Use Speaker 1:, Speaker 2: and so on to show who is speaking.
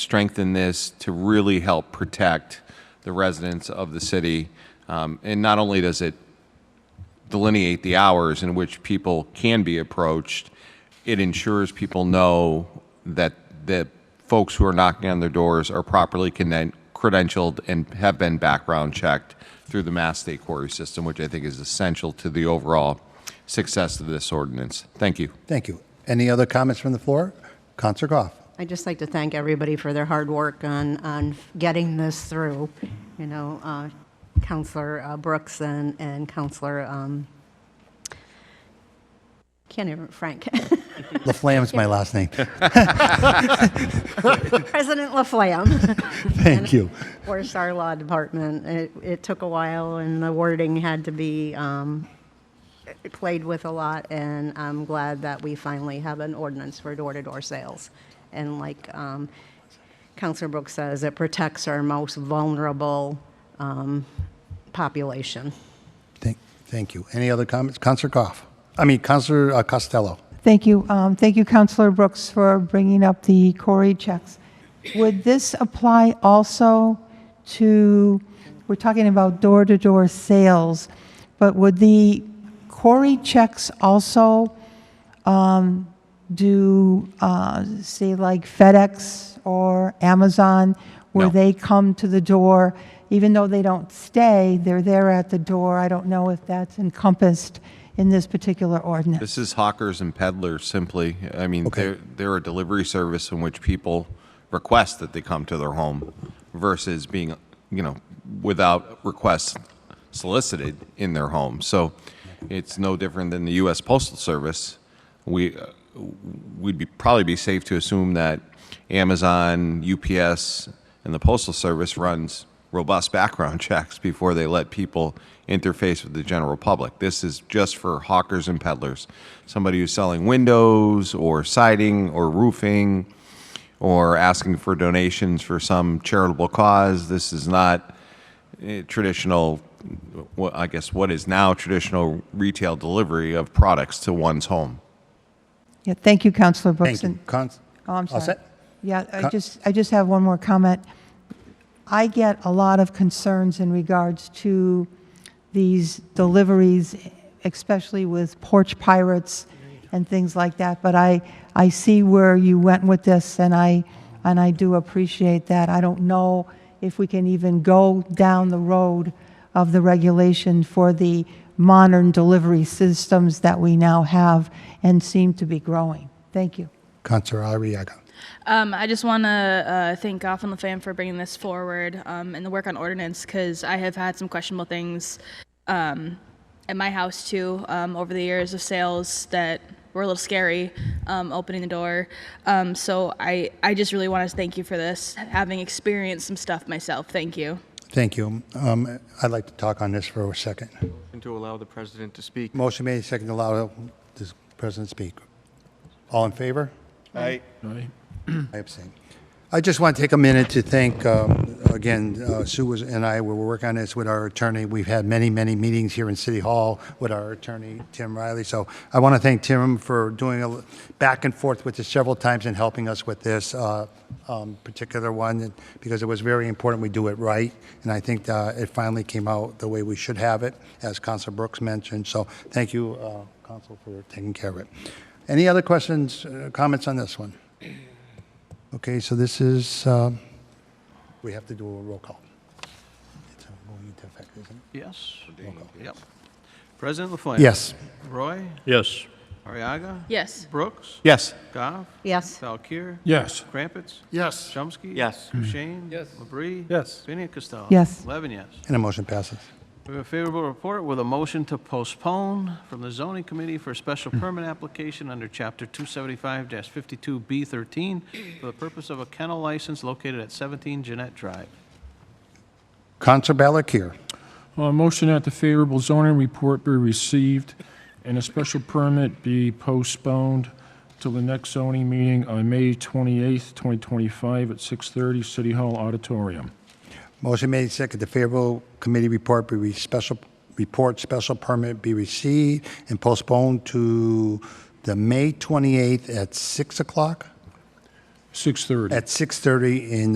Speaker 1: strengthen this to really help protect the residents of the city. Um, And not only does it delineate the hours in which people can be approached, it ensures people know that the folks who are knocking on their doors are properly connect- credentialed and have been background checked through the Mass State Quarry System, which I think is essential to the overall success of this ordinance. Thank you.
Speaker 2: Thank you. Any other comments from the floor? Counselor Goff.
Speaker 3: I'd just like to thank everybody for their hard work on, on getting this through. You know, uh, Counselor uh, Brooks and, and Counselor, um, can't even, Frank,
Speaker 2: LaFlamme's my last name.
Speaker 3: President Laflamme,
Speaker 2: Thank you.
Speaker 3: Forest our Law Department. It, it took a while and the wording had to be, um, played with a lot and I'm glad that we finally have an ordinance for door-to-door sales. And like, um, Counselor Brooks says, it protects our most vulnerable, um, population.
Speaker 2: Thank, thank you. Any other comments? Counselor Goff. I mean, Counselor uh, Costello.
Speaker 4: Thank you. Um, Thank you, Counselor Brooks, for bringing up the Corey checks. Would this apply also to, we're talking about door-to-door sales, but would the Corey checks also um, do, uh, say, like FedEx or Amazon, where
Speaker 1: No.
Speaker 4: they come to the door, even though they don't stay, they're there at the door? I don't know if that's encompassed in this particular ordinance.
Speaker 1: This is hawkers and peddlers simply. I mean, they're, they're a delivery service in which people request that they come to their home versus being, you know, without requests solicited in their home. So it's no different than the U.S. Postal Service. We, uh, we'd be, probably be safe to assume that Amazon, UPS, and the Postal Service runs robust background checks before they let people interface with the general public. This is just for hawkers and peddlers, somebody who's selling windows or siding or roofing or asking for donations for some charitable cause. This is not eh, traditional, wh- I guess, what is now traditional retail delivery of products to one's home.
Speaker 4: Yeah, thank you, Counselor Brooks.
Speaker 2: Thank you.
Speaker 4: And-
Speaker 2: Cons-
Speaker 4: Oh, I'm
Speaker 2: All
Speaker 4: sorry.
Speaker 2: set?
Speaker 4: Yeah, I
Speaker 2: Con-
Speaker 4: just, I just have one more comment. I get a lot of concerns in regards to these deliveries, especially with porch pirates and things like that, but I, I see where you went with this, and I, and I do appreciate that. I don't know if we can even go down the road of the regulation for the modern delivery systems that we now have and seem to be growing. Thank you.
Speaker 2: Counselor Ariaga.
Speaker 5: Um, I just want to uh, thank Goff and LaFamme for bringing this forward um, and the work on ordinance because I have had some questionable things um, at my house too um, over the years of sales that were a little scary um, opening the door. Um, so I, I just really want to thank you for this, having experienced some stuff myself. Thank you.
Speaker 2: Thank you. Um, I'd like to talk on this for a second.
Speaker 6: And to allow the president to speak.
Speaker 2: Motion made, second to allow this president to speak. All in favor? I abstain. I just want to take a minute to thank, um, again, uh, Sue was- and I, we were working on this with our attorney. We've had many, many meetings here in City Hall with our attorney, Tim Riley. So I want to thank Tim for doing a l- back and forth with us several times and helping us with this uh, um, particular one, because it was very important we do it right. And I think uh, it finally came out the way we should have it, as Council Brooks mentioned. So thank you, uh, Council, for taking care of it. Any other questions, uh, comments on this one? Okay, so this is, um, we have to do a roll call. It's going into effect, isn't it?
Speaker 6: Yes. Yep. President Laflamme?
Speaker 2: Yes.
Speaker 6: Roy?
Speaker 7: Yes.
Speaker 6: Ariaga?
Speaker 5: Yes.
Speaker 6: Brooks?
Speaker 1: Yes.
Speaker 6: Goff?
Speaker 3: Yes.
Speaker 6: Valkir?
Speaker 7: Yes.
Speaker 6: Crumpets?
Speaker 2: Yes.
Speaker 6: Chomsky?
Speaker 7: Yes.
Speaker 6: Kushein? Yes. Labrie?
Speaker 7: Yes.
Speaker 6: Pena Costello?
Speaker 4: Yes.
Speaker 6: Eleven yes.
Speaker 2: And a motion passes.
Speaker 6: We have a favorable report with a motion to postpone from the zoning committee for a special permit application under chapter 275-52B13 for the purpose of a kennel license located at 17 Jeanette Drive.
Speaker 2: Counselor Ballakir,
Speaker 7: Uh, motion that the favorable zoning report be received and a special permit be postponed till the next zoning meeting on May 28th, 2025 at 6:30 City Hall Auditorium.
Speaker 2: motion made second, the favorable committee report be re- special, report special permit be received and postponed to the May 28th at 6 o'clock?
Speaker 7: 6:30.
Speaker 2: at 6:30 in